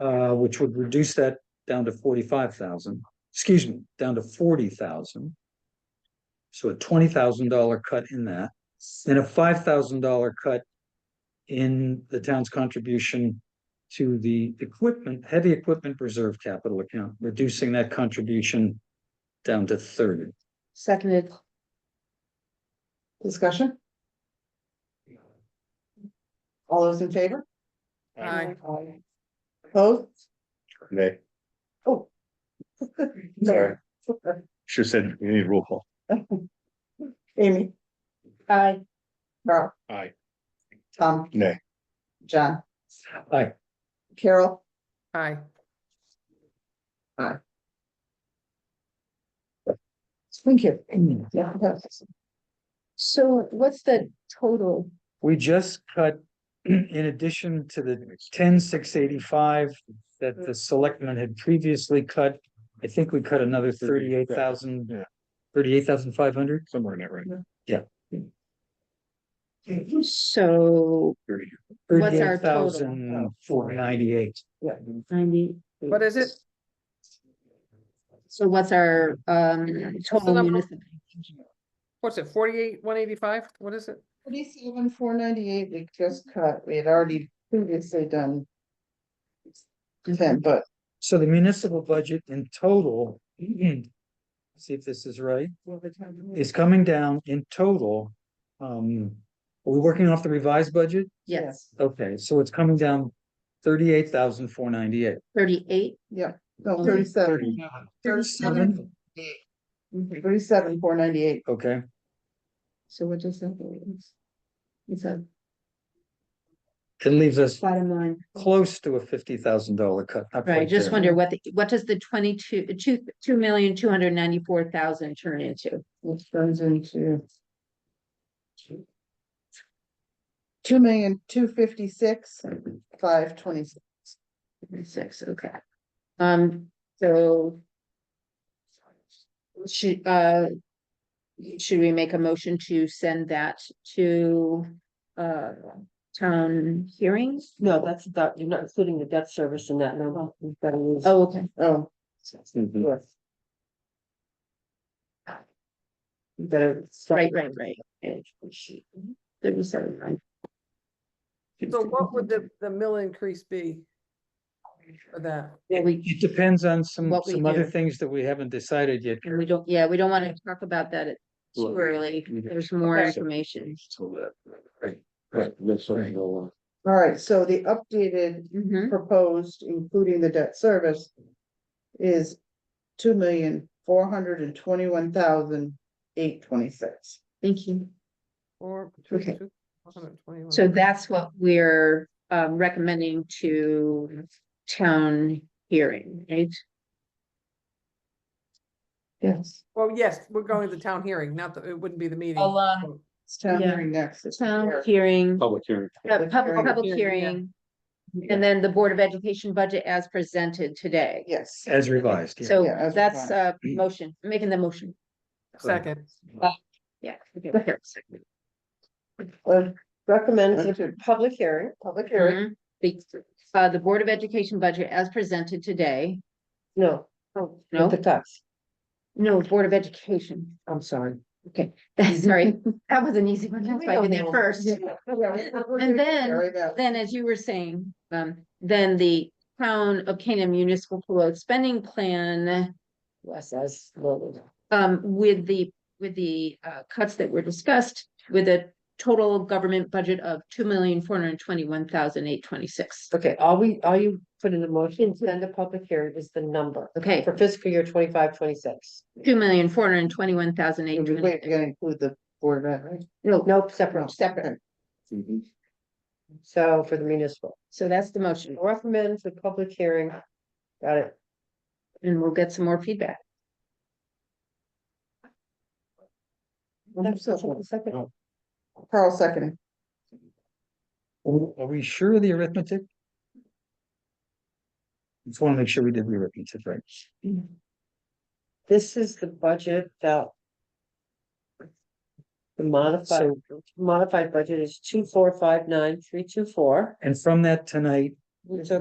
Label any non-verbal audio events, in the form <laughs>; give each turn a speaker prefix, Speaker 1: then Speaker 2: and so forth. Speaker 1: Uh, which would reduce that down to forty-five thousand, excuse me, down to forty thousand. So a twenty thousand dollar cut in that, and a five thousand dollar cut in the town's contribution to the equipment, heavy equipment reserve capital account, reducing that contribution down to thirty.
Speaker 2: Seconded.
Speaker 3: Discussion? All those in favor?
Speaker 2: Aye.
Speaker 3: Opposed?
Speaker 4: Nay,
Speaker 3: Oh.
Speaker 4: Sorry. should have said, you need roll call.
Speaker 3: Amy,
Speaker 2: Aye.
Speaker 3: Carl,
Speaker 4: Aye.
Speaker 3: Tom,
Speaker 4: Nay,
Speaker 3: John,
Speaker 1: Aye.
Speaker 3: Carol,
Speaker 2: Aye.
Speaker 3: thank you.
Speaker 1: Yeah.
Speaker 2: So what's the total?
Speaker 1: We just cut, <clears throat> in addition to the ten six eighty-five that the selectmen had previously cut, I think we cut another thirty-eight
Speaker 4: Yeah.
Speaker 1: thousand, thirty-eight thousand five hundred.
Speaker 4: somewhere in that range.
Speaker 2: So What's our
Speaker 1: Thirty-eight
Speaker 2: total?
Speaker 1: thousand four ninety-eight.
Speaker 2: ninety,
Speaker 5: What is it?
Speaker 2: so what's our um total
Speaker 5: number?
Speaker 2: municipal?
Speaker 5: What's it, forty-eight, one eighty-five? What is it?
Speaker 3: Forty-seven, four ninety-eight, we just cut, we had already previously done ten, but
Speaker 1: So the municipal budget in total, <clears throat> see if this is right, is coming down in total. Um, are we working off the revised budget?
Speaker 2: Yes,
Speaker 1: Okay, so it's coming down thirty-eight thousand four ninety-eight.
Speaker 2: thirty-eight.
Speaker 3: no, thirty-seven. Thirty-seven. Thirty-seven, four ninety-eight.
Speaker 1: Okay,
Speaker 2: So what does that mean? It's a
Speaker 1: it leaves us
Speaker 2: bottom line.
Speaker 1: close to a fifty thousand dollar cut. not
Speaker 2: Right, I
Speaker 1: quite
Speaker 2: just
Speaker 1: there.
Speaker 2: wonder what, the what does the twenty-two, two, two million, two hundred ninety-four thousand turn into?
Speaker 3: Which turns into. Two million, two fifty-six, five twenty-six.
Speaker 2: Six, okay. Um, so. Should, uh. Should we make a motion to send that to, uh, town hearings?
Speaker 6: No, that's that, you're not including the debt service in that number. You've got to use.
Speaker 2: Oh, okay,
Speaker 3: Oh,
Speaker 1: Mhm.
Speaker 6: Yes. You better.
Speaker 2: right, right, right. Thirty-seven, right.
Speaker 5: So what would the, the mill increase be? For that?
Speaker 2: Yeah, we,
Speaker 1: It depends on some,
Speaker 2: What we
Speaker 1: some other
Speaker 2: do.
Speaker 1: things that we haven't decided yet.
Speaker 2: and we don't, yeah, we don't wanna talk about that at- too early, there's more
Speaker 5: Okay.
Speaker 2: information.
Speaker 3: all right, so the updated
Speaker 2: Mm-hmm.
Speaker 3: proposed, including the debt service. Is two million, four hundred and twenty-one thousand, eight twenty-six.
Speaker 2: Thank you.
Speaker 5: Or?
Speaker 2: Okay. So that's what we're um recommending to town hearing, right?
Speaker 3: Yes.
Speaker 5: Well, yes, we're going to the town hearing, not the, it wouldn't be the meeting.
Speaker 2: Along-
Speaker 3: It's town
Speaker 2: Yeah.
Speaker 3: hearing next.
Speaker 2: The
Speaker 3: it's
Speaker 2: Town
Speaker 3: here.
Speaker 2: hearing,
Speaker 4: Public hearing.
Speaker 2: uh, public,
Speaker 3: hearing.
Speaker 2: public
Speaker 5: Hearing, yeah.
Speaker 2: hearing. And then the Board of Education budget as presented today.
Speaker 3: Yes.
Speaker 1: As revised, yeah.
Speaker 2: So
Speaker 3: Yeah, as
Speaker 2: that's a
Speaker 1: revised.
Speaker 2: motion, making the motion,
Speaker 5: Second,
Speaker 2: yeah. okay, okay, second.
Speaker 6: Well, recommend to public hearing, public hearing,
Speaker 2: Mhm. The uh, the Board of Education budget as presented today,
Speaker 6: no.
Speaker 2: No?
Speaker 6: The tax,
Speaker 2: no, Board of Education,
Speaker 6: Oh, I'm sorry.
Speaker 2: okay, <laughs> sorry, that was an easy one, that's why I did that first.
Speaker 3: And
Speaker 2: then- Then, as you were saying, um, then the town of Canaan municipal pool spending plan,
Speaker 6: Yes, as loaded.
Speaker 2: um, with the, with the, uh, cuts that were discussed, with a total government budget of two million, four hundred and twenty-one thousand, eight twenty-six.
Speaker 6: Okay, all we, all you put in the motion, send a public hearing is the number
Speaker 2: Okay,
Speaker 6: for fiscal year twenty-five, twenty-six.
Speaker 2: two million, four hundred and twenty-one thousand, eight
Speaker 3: Wait, You're
Speaker 2: twenty-six.
Speaker 3: gonna include the board of, Ed, right?
Speaker 6: No, no, separate,
Speaker 3: Separate.
Speaker 6: so for the municipal,
Speaker 2: So that's the motion,
Speaker 6: recommend for public hearing. Got it.
Speaker 2: and we'll get some more feedback.
Speaker 6: Second.
Speaker 3: Carl seconding.
Speaker 1: Are we sure of the arithmetic? Just wanna make sure we did the arithmetic right.
Speaker 6: This is the budget that. The modified, modified budget is two, four, five, nine, three, two, four.
Speaker 1: And from that tonight,
Speaker 7: It's
Speaker 6: So